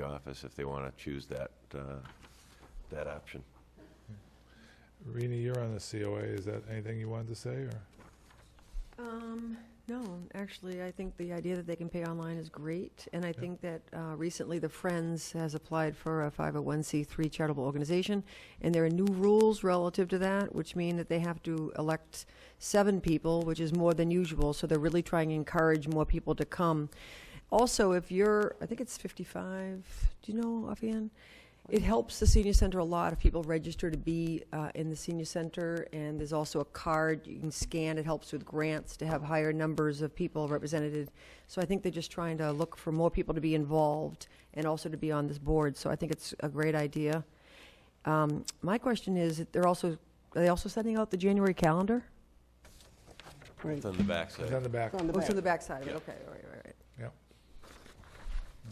the office if they want to choose that, uh, that option. Rini, you're on the COA. Is that anything you wanted to say, or? Um, no, actually, I think the idea that they can pay online is great, and I think that uh, recently the Friends has applied for a 501c3 charitable organization, and there are new rules relative to that, which mean that they have to elect seven people, which is more than usual, so they're really trying to encourage more people to come. Also, if you're, I think it's 55, do you know offhand? It helps the senior center a lot if people register to be uh, in the senior center, and there's also a card you can scan. It helps with grants to have higher numbers of people represented. So I think they're just trying to look for more people to be involved and also to be on this board. So I think it's a great idea. Um, my question is, they're also are they also sending out the January calendar? It's on the It's backside. on the back. It's on the Oh, it's back. on the backside of it. Yeah. Okay, all right, all right.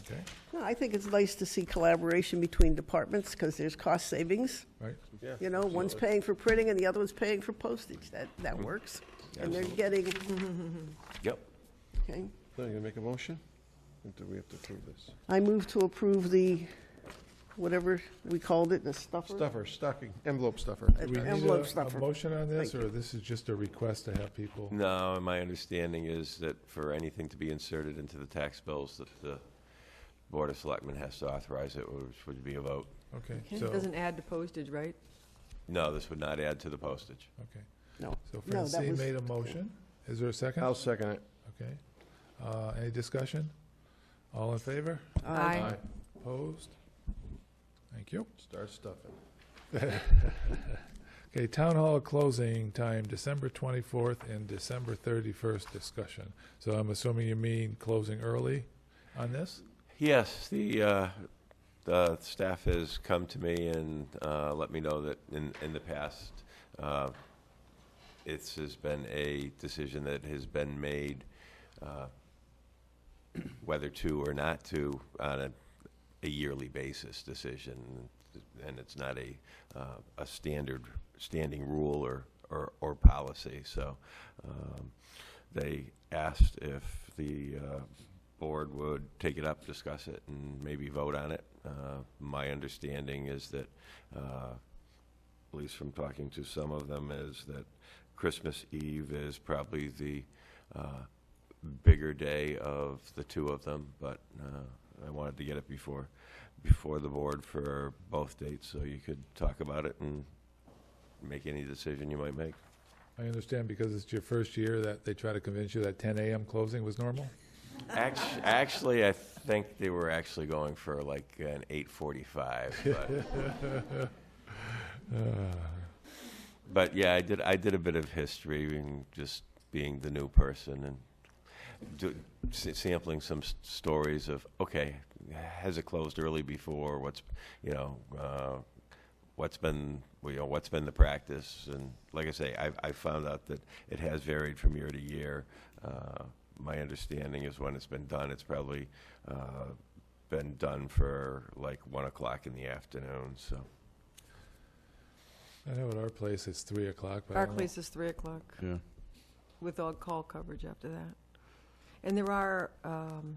Okay, No, I think it's nice to see collaboration between departments because there's cost savings. right. You know, one's paying for printing and the other one's paying for postage. That, that Mm-hmm. works. And they're getting, Yep. okay. Now, you gonna make a motion? Or do we have to approve this? I move to approve the, whatever we called it, the stuffer. Stuffer, stocking, envelope stuffer. Do we need a- Envelope a stuffer. motion on this, Thank or this is just a request to have people? No, my understanding is that for anything to be inserted into the tax bills, that the Board of Selectmen has to authorize it, which would be a vote. Okay, Okay. so, It doesn't add to postage, right? No, this would not add to the postage. okay. No. So No, that Francine was- made a motion. Is there a second? I'll second it. Okay. Uh, Any discussion? All in favor? Uh, Aye. Opposed? Thank you. Start stuffing. Okay, town hall closing time, December 24th and December 31st discussion. So I'm assuming you mean closing early on this? Yes, the, uh, the staff has come to me and, uh, let me know that in, in the past, uh, it's, has been a decision that has been made, uh, whether to or not to on a, a yearly basis decision. And it's not a, uh, a standard, standing rule or, or, or policy. So, um, they asked if the, uh, board would take it up, discuss it, and maybe vote on it. Uh, My understanding is that, uh, at least from talking to some of them, is that Christmas Eve is probably the uh, bigger day of the two of them, but uh, I wanted to get it before, before the board for both dates, so you could talk about it and make any decision you might make. I understand because it's your first year that they try to convince you that 10 AM closing was normal? Act- Actually, I think they were actually going for like an 8:45, but But yeah, I did. I did a bit of history and just being the new person and do, s- sampling some s- stories of okay, has it closed early before? What's you know, uh, what's been you know what's been the practice? And like I say, I I found out that it has varied from year to year. Uh, my understanding is when it's been done, it's probably uh, been done for like one o'clock in the afternoon. So I know at our place it's 3 o'clock, but I don't know. Barclays is three o'clock. With all call coverage after that. And there are um,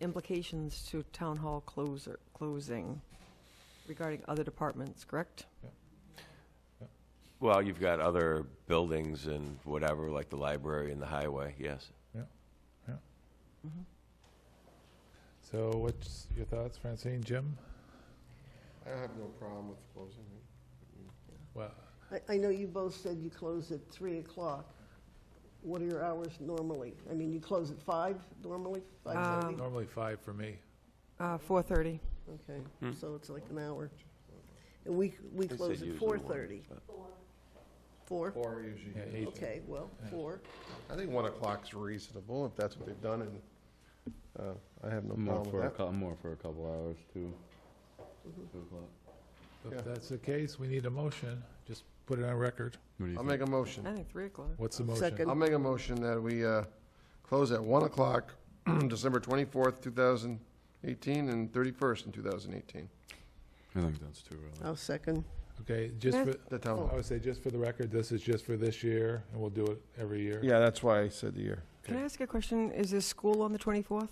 implications to town hall closer, closing regarding other departments, correct? well, you've got other buildings and whatever, like the library and the highway. Yes. So what's your thoughts, Francine, Jim? I have no problem with closing. Well, I, I know you both said you close at three o'clock. What are your hours normally? I mean, you close at five normally, five thirty? normally 5 for me. Uh, 4:30. Okay, Hmm. so it's like an hour. And we, we They said close at usually four one, thirty. but- Four? Or usually, Yeah, eight. Okay, well, Yeah. four. I think one o'clock's reasonable, if that's what they've done, and uh, I have no More problem for with a that. Mm-hmm. couple, more for a couple hours too. Two o'clock. If Yeah. that's the case, we need a motion. Just put it on record. What do you I'll think? make a motion. I think 3 o'clock. What's the motion? Second. I'll make a motion that we uh, close at 1 o'clock, December 24th, 2018, and 31st in 2018, I think that's too early. I'll second. Okay, just Eh. for, the town I hall. would say just for the record, this is just for this year, and we'll do it every year. Yeah, that's why I said the year. Can I ask a question? Is there school on the 24th?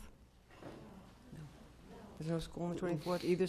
There's no school on the 24th either,